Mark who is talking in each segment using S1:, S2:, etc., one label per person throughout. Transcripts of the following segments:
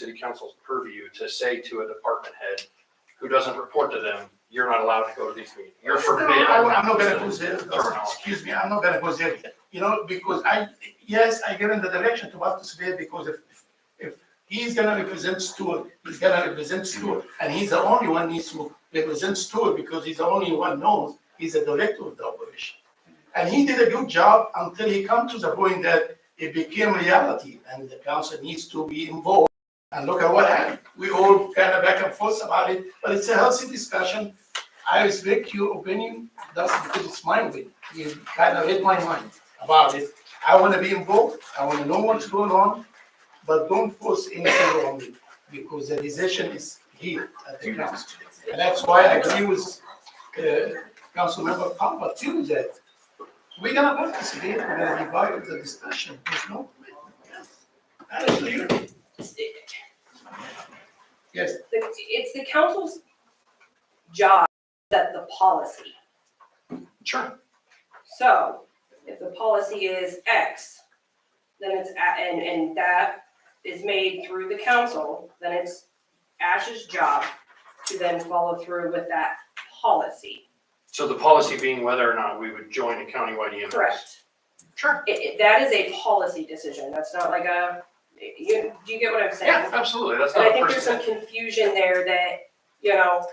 S1: city council's purview to say to a department head who doesn't report to them, you're not allowed to go to these meetings. You're forbidden.
S2: No, I- I'm not gonna go there,
S1: Terminology.
S2: excuse me, I'm not gonna go there, you know, because I, yes, I give him the direction to participate, because if, if he's gonna represent Stewart, he's gonna represent Stewart, and he's the only one needs to represent Stewart, because he's the only one knows, he's the director of the operation. And he did a good job until he come to the point that it became reality, and the council needs to be involved. And look at what happened, we all kind of back and forth about it, but it's a healthy discussion, I respect your opinion, that's because it's my opinion. You kind of read my mind about it. I want to be involved, I want to know what's going on, but don't force anything on me, because the decision is here at the council. And that's why I agree with, uh, Councilmember Palmer too, that we're gonna participate, we're gonna be part of the discussion, there's no. That is clear.
S3: It's
S2: Yes,
S3: the- it's the council's job that the policy.
S1: Sure.
S3: So if the policy is X, then it's, a- and, and that is made through the council, then it's Ash's job to then follow through with that policy.
S1: So the policy being whether or not we would join a countywide E EMS.
S3: Correct.
S1: Sure.
S3: It, it, that is a policy decision. That's not like a, you, do you get what I'm saying?
S1: Yeah, absolutely. That's
S3: And
S1: not a
S3: I think there's some
S1: person.
S3: confusion there that, you know.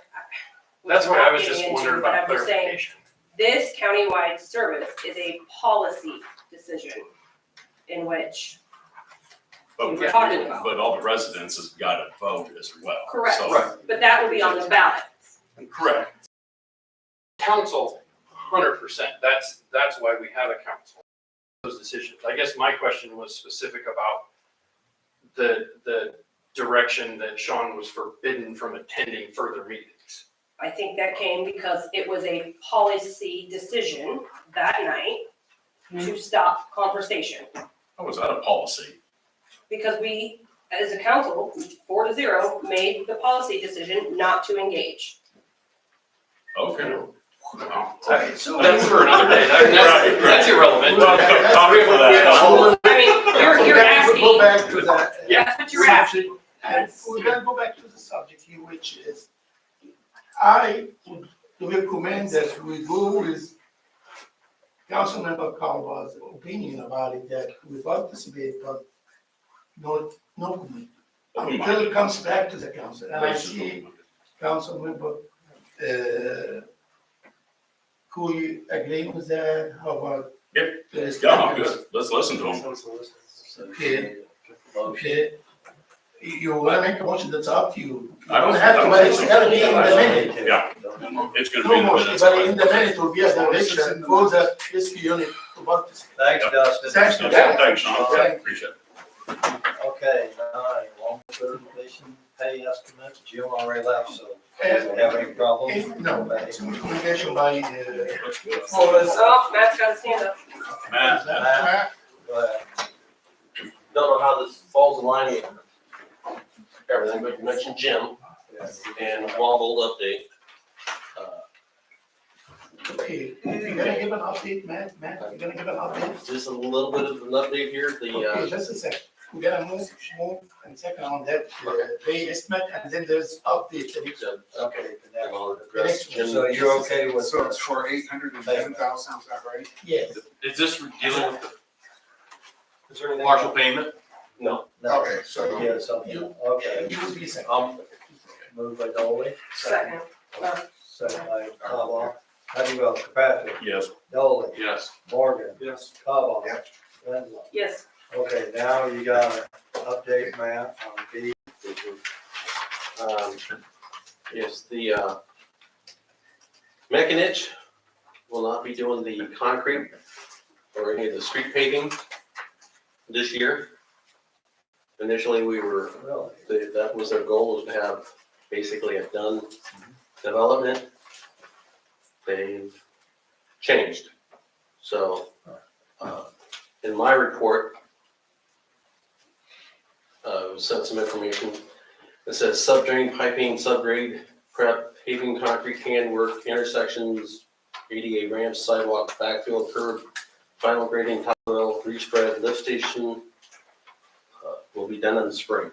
S1: That's
S3: what
S1: why I was just wondering about
S3: But I'm just saying,
S1: clarification.
S3: this countywide service is a policy decision in which,
S4: But,
S3: We're talking about.
S4: but all the residents has got to vote as well.
S3: Correct.
S4: So-
S1: Right.
S3: but that will be on the ballot.
S4: Correct.
S1: Council, hundred percent. That's, that's why we have a council. Those decisions. I guess my question was specific about the, the direction that Sean was forbidden from attending further meetings.
S3: I think that came because it was a policy decision that night to stop conversation.
S4: That was out of policy.
S3: Because we, as a council, four to zero, made the policy decision not to engage.
S4: Okay.
S2: okay, so.
S1: That's for another day. That- That's,
S4: Right,
S1: that's
S4: right.
S1: irrelevant.
S4: Well, okay, copy for that.
S3: I mean, you're, you're
S2: Go
S3: asking,
S2: back to that.
S1: Yeah.
S3: that's what you're asking.
S2: And we're gonna go back to the subject here, which is, I would recommend that we go with Councilmember Calva's opinion about it, that we participate, but not, no comment. Until it comes back to the council, and I see Councilmember, uh, Cooley agreeing with that, how about?
S4: Yeah.
S2: Yes.
S4: Yeah, I'm good. Let's listen to them.
S2: Okay, okay. You- You wanna make a motion, that's up to you. You
S4: I don't-
S2: don't have to, but it's gotta be in the minute.
S4: Yeah. It's going to be
S2: No
S4: in the
S2: motion,
S4: minutes.
S2: but in the minute will be a direction for the rescue unit to participate.
S5: Thanks, Dustin.
S2: Thanks,
S4: Okay,
S2: Dustin.
S4: Thanks, Sean. Yeah, Appreciate it.
S5: Okay, nine, long-term completion pay estimates, Jim already left, so
S2: Uh,
S5: do you have any problems?
S2: If- No, it's communication by, uh,
S4: Looks good.
S2: Forrest.
S3: Oh, Matt's got his hand up.
S4: Matt, Matt,
S5: But
S6: don't know how this falls in line here. Everything, but you mentioned Jim and Wobble update. Uh,
S2: Okay, you're gonna give an update, Matt, Matt, you're gonna give an update?
S6: Just a little bit of an update here, the,
S2: Okay,
S6: uh,
S2: just a sec, we gotta move, move and second on that, uh, pay estimate, and then there's update, the next-
S6: the-
S5: Okay,
S6: I'm
S5: the
S6: gonna address
S5: next,
S6: Jim.
S5: so you're okay with
S7: So
S5: that?
S7: it's for eight hundred and ten thousand, sounds about right?
S2: yes.
S8: Is this dealing with
S6: Is there
S8: the
S6: anything-
S8: partial payment?
S6: No,
S5: No.
S7: Okay, so-
S5: Yeah, something, okay,
S2: You will be second.
S6: um,
S4: Oh.
S5: moved by Dolly,
S3: Second.
S5: second by Kavah. How do you vote, Kirkpatrick,
S4: yes,
S5: Dolly,
S8: Yes.
S5: Morgan,
S7: Yes.
S5: Kavah,
S7: Yep.
S5: Lindblom.
S3: Yes,
S5: Okay, now you got an update, Matt, on B.
S6: um, yes, the, uh, Mechanich will not be doing the concrete or any of the street paving this year. Initially, we were
S5: Really?
S6: They- that was their goal, was to have basically a done development. They've changed. So, uh, in my report, uh, sent some information. It says subdrain piping, subgrade prep, paving, concrete can work, intersections, ADA ramps, sidewalk, backfill, curb, final grading, tile, level, respread, lift station, uh, will be done in the spring.